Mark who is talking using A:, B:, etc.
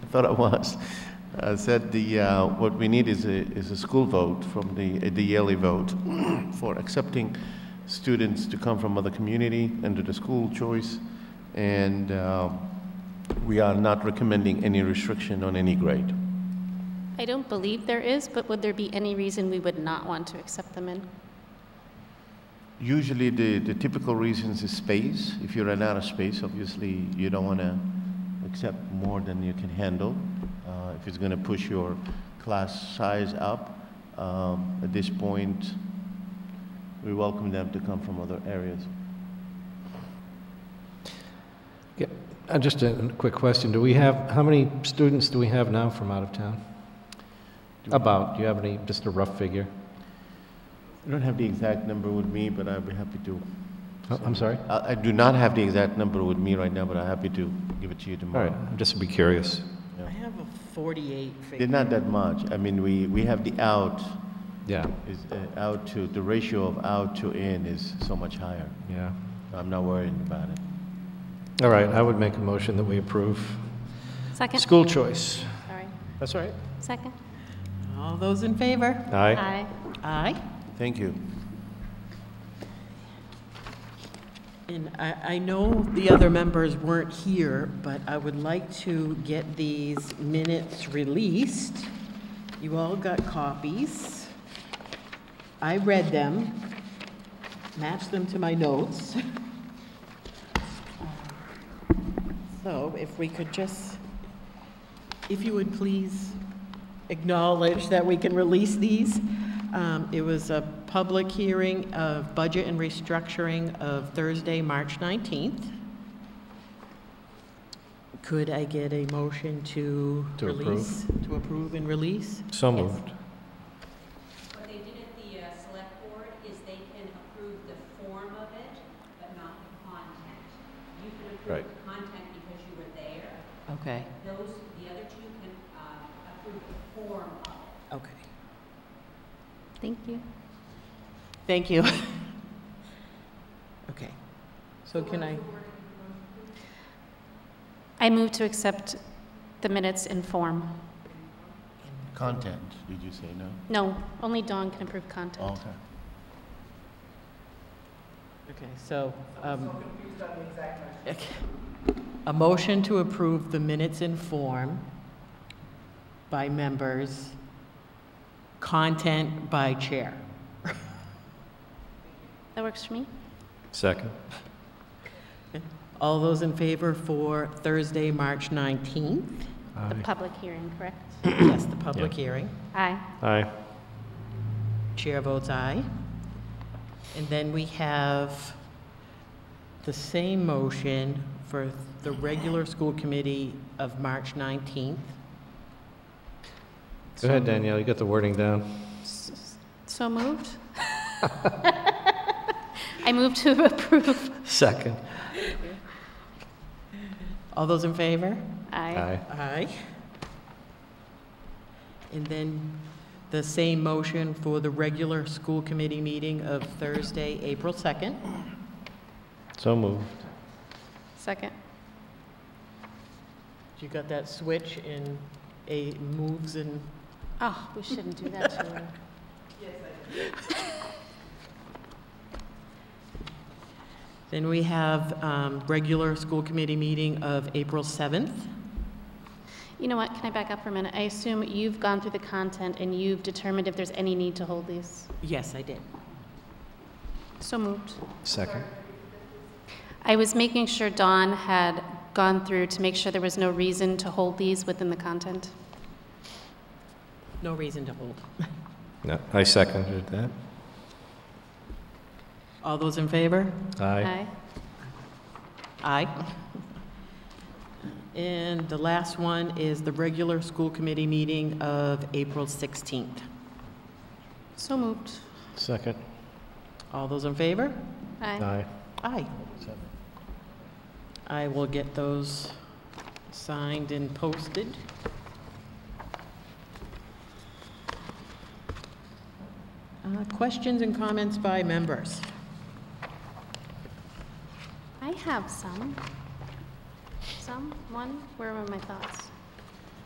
A: thought I was. I said the, uh, what we need is a, is a school vote from the, uh, the yearly vote for accepting students to come from other community under the school choice. And uh, we are not recommending any restriction on any grade.
B: I don't believe there is, but would there be any reason we would not want to accept them in?
A: Usually, the, the typical reasons is space. If you run out of space, obviously, you don't want to accept more than you can handle. Uh, if it's going to push your class size up, um, at this point, we welcome them to come from other areas.
C: Uh, Just a quick question. Do we have, how many students do we have now from out of town?
A: Do-
C: About, do you have any, just a rough figure?
A: I don't have the exact number with me, but I'd be happy to.
C: Oh, I'm sorry?
A: I, I do not have the exact number with me right now, but I'm happy to give it to you
C: All right,
A: tomorrow.
C: I'm just be curious.
A: Yeah.
D: I have a 48
A: They're
D: figure.
A: not that much. I mean, we, we have the out.
C: Yeah,
A: is uh, out to the ratio of out to in is so much higher.
C: yeah.
A: I'm not worried about it.
C: All right, I would make a motion that we approve
B: Second?
C: school choice.
B: Sorry.
C: That's all right.
B: Second?
D: All those in favor?
C: Aye.
D: Aye.
A: Thank you.
D: And I, I know the other members weren't here, but I would like to get these minutes released. You all got copies. I read them, matched them to my notes. So if we could just, if you would please acknowledge that we can release these. Um, It was a public hearing of budget and restructuring of Thursday, March 19th. Could I get a motion to
C: To approve.
D: release? To approve and release?
C: So
D: Yes.
C: moved.
E: What they did at the uh, select board is they can approve the form of it, but not the content. You can approve
C: Right.
E: the content because you were there.
D: Okay,
E: Those, the other two can uh, approve the form of it.
D: okay.
B: Thank you.
D: Thank you. Okay. So can I,
B: I move to accept the minutes in form.
A: Content, did you say no?
B: No, only Dawn can approve
C: Oh.
B: content.
A: Okay.
D: okay, so. um, Okay. A motion to approve the minutes in form by members, content by chair.
B: That works for me?
C: Second.
D: All those in favor for Thursday, March
B: The
D: 19th?
C: Aye.
B: public hearing, correct?
D: Yes, the public hearing.
B: Aye.
C: Aye.
D: Chair votes aye. And then we have the same motion for the regular school committee of March 19th.
C: Go ahead, Danielle, you got the wording down.
B: S- So moved? I move to approve.
C: Second.
D: All those in favor?
B: Aye.
C: Aye.
D: Aye. And then the same motion for the regular school committee meeting of Thursday, April 2nd.
C: So moved.
B: Second?
D: You got that switch in a moves and
B: Oh, we shouldn't do that to her.
D: Then we have um, regular school committee meeting of April 7th.
B: You know what, can I back up for a minute? I assume you've gone through the content and you've determined if there's any need to hold these.
D: Yes, I did.
B: So moved.
C: Second.
B: I was making sure Dawn had gone through to make sure there was no reason to hold these within the content.
D: No reason to hold.
C: No, I seconded that.
D: All those in favor?
C: Aye.
D: Aye. And the last one is the regular school committee meeting of April 16th.
B: So moved.
C: Second.
D: All those in favor?
B: Aye.
C: Aye.
D: Aye. I will get those signed and posted. Uh, Questions and comments by members?
B: I have some. Some, one, where were my thoughts?